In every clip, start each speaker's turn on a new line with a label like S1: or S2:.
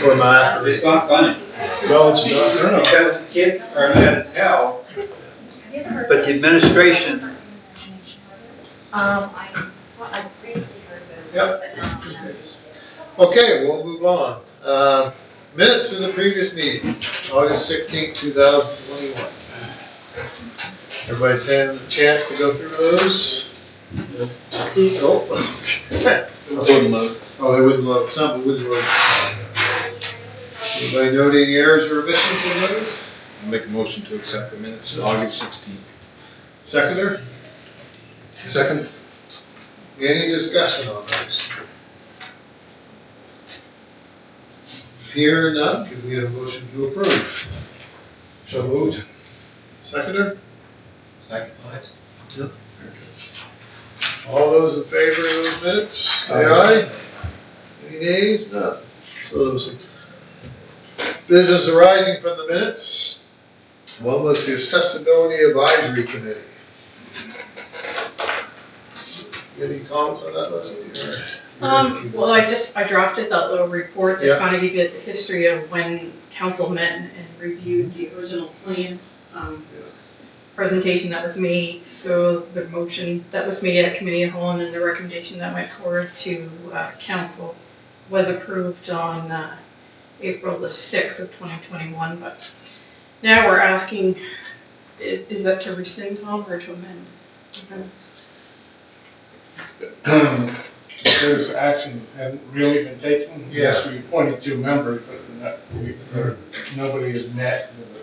S1: for my,
S2: It's not funny,
S1: no, it's not, no, no.
S2: because the kids are mad as hell.
S3: But the administration.
S4: Um, I, well, I previously heard those.
S1: Yep.
S4: but now I'm not.
S1: Okay, we'll move on. Uh, Minutes of the previous meeting, August sixteenth, two thousand twenty-one. Everybody's had a chance to go through those?
S5: Oh,
S1: Nope.
S5: Wouldn't load.
S1: Oh, they wouldn't load, some wouldn't load. Anybody note any errors or omissions in those?
S5: Make a motion to accept the minutes of August sixteenth.
S1: Seconder,
S5: Second?
S1: any discussion on those? Here none, could we have a motion to approve? So moved. Seconder?
S5: Second.
S1: All those in favor of those minutes, say aye. Any nays? None. So those business arising from the minutes. One was the accessibility advisory committee. Any comments on that, Leslie? or-
S6: Um, well, I just, I drafted that little report
S1: Yeah.
S6: that kind of gave you the history of when council met and reviewed the original plan, um,
S1: Yeah.
S6: presentation that was made, so the motion that was made at committee of whole and then the recommendation that went forward to, uh, council was approved on, uh, April the sixth of twenty twenty-one, but now we're asking, i- is that to rescind, Tom, or to amend?
S7: Because Hmm. action hasn't really been taken.
S1: Yeah.
S7: Yes, we appointed two members, but we're not, we, or nobody has met with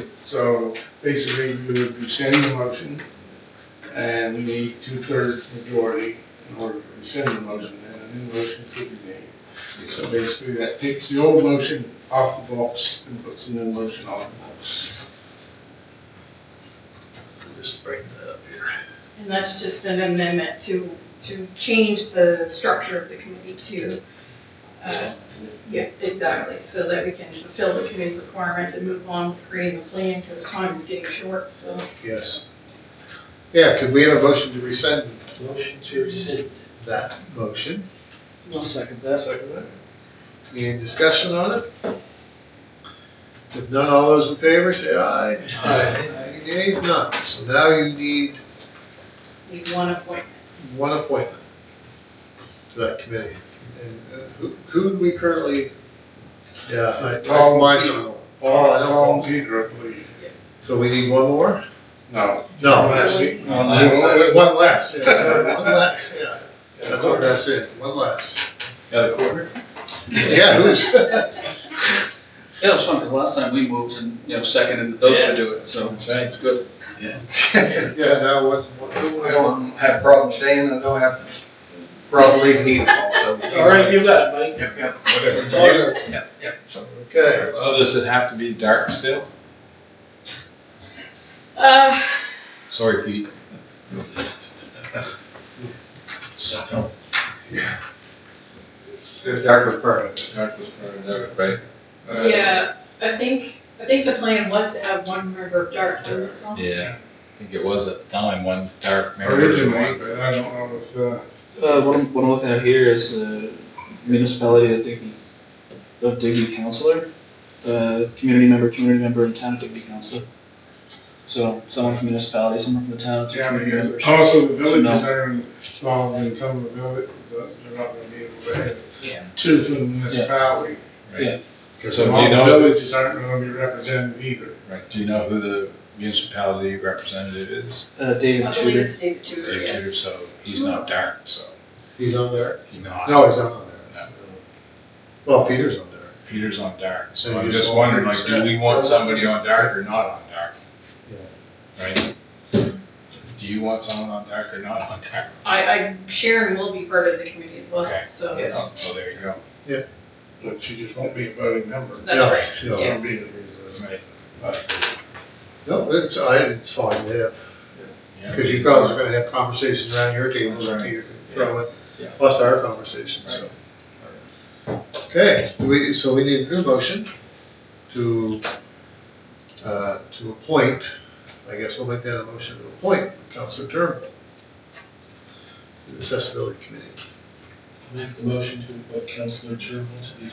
S7: it. So basically, we would rescind the motion, and we need two-thirds majority in order to rescind the motion, and a new motion could be made. So basically, that takes the old motion off the box and puts a new motion on the box.
S1: Just bring that up here.
S6: And that's just an amendment to, to change the structure of the committee to, uh, yeah, exactly, so that we can fulfill the committee requirements and move on with creating the plan, because time is getting short, so.
S1: Yes. Yeah, could we have a motion to rescind? Motion to rescind. That motion. I'll second that. Second that. Any discussion on it? If none, all those in favor, say aye. Aye. Any nays? None. So now you need
S6: Need one appointment.
S1: one appointment to that committee. And uh, who, who do we currently, yeah, I, I,
S7: Paul.
S1: mine's not on. Paul, I don't
S7: Paul
S1: know.
S7: Pedro, please.
S1: So we need one more?
S7: No.
S1: No.
S7: Leslie.
S1: One one less, yeah, one less, yeah. That's what that's it, one less.
S5: Got a quarter?
S1: Yeah, who's?
S8: Yeah, it was fun, because last time we moved and, you know, seconded those to do it, so.
S5: That's right.
S8: It's good.
S1: Yeah, now what, what- who
S5: I
S1: was?
S5: don't have problem saying, I don't have problem leaving either. All right, you got it, buddy. Yep, yep. Whatever.
S1: It's all yours.
S5: Yep, yep. So-
S1: Okay.
S5: So Oh, does it have to be dark still?
S6: Uh,
S5: Sorry, Pete.
S1: So. Yeah.
S5: Dark was permanent. Dark was permanent, right? Uh,
S6: yeah, I think, I think the plan was to have one member of dark. wasn't it, Tom?
S5: Yeah, I think it was at the time, one dark member.
S7: Originally, but I don't know if, uh,
S9: Uh, what I'm, what I'm looking at here is uh, municipality of Digby, of Digby councillor, uh, community member, community member, and town of Digby councillor. So someone from municipality, someone from the town. two
S7: Yeah,
S9: community members.
S7: because also the villages
S9: No.
S7: are involved in some of the villages, but they're not gonna be able to have two from the municipality.
S5: Right. So
S7: So
S5: do
S7: all
S5: you
S7: the
S5: know,
S7: villages aren't gonna be represented either.
S5: right, do you know who the municipality representative is?
S9: Uh, David
S6: I believe
S9: Tudor.
S6: it's David Tudor, yes.
S5: So he's not dark, so
S1: He's on there?
S5: he's not.
S1: No, he's not on there. Well, Peter's on there.
S5: Peter's on dark, so
S1: So
S5: I'm
S1: you
S5: just
S1: just
S5: wondering,
S1: want
S5: like,
S1: Peter
S5: do
S1: to
S5: we
S1: stay?
S5: want somebody on dark or not on dark?
S1: Yeah.
S5: Right? Do you want someone on dark or not on dark?
S6: I, I, Sharon will be part of the committee as well,
S5: Okay.
S6: so.
S5: Oh, So there you go.
S7: But she just won't be a voting member.
S6: That's
S1: Yeah,
S6: right.
S1: yeah.
S7: She'll be the-
S5: Right.
S1: No, it's, I, it's fine, yeah,
S5: Yeah.
S1: because you guys are gonna have conversations around your tables,
S5: Right.
S1: Peter, can throw in,
S5: Yeah.
S1: plus our conversation, so. Okay, do we, so we need a new motion to, uh, to appoint, I guess we'll make that a motion to appoint Counselor Turnbull to the Accessibility Committee.
S9: Make the motion to appoint councillor Turnbull to the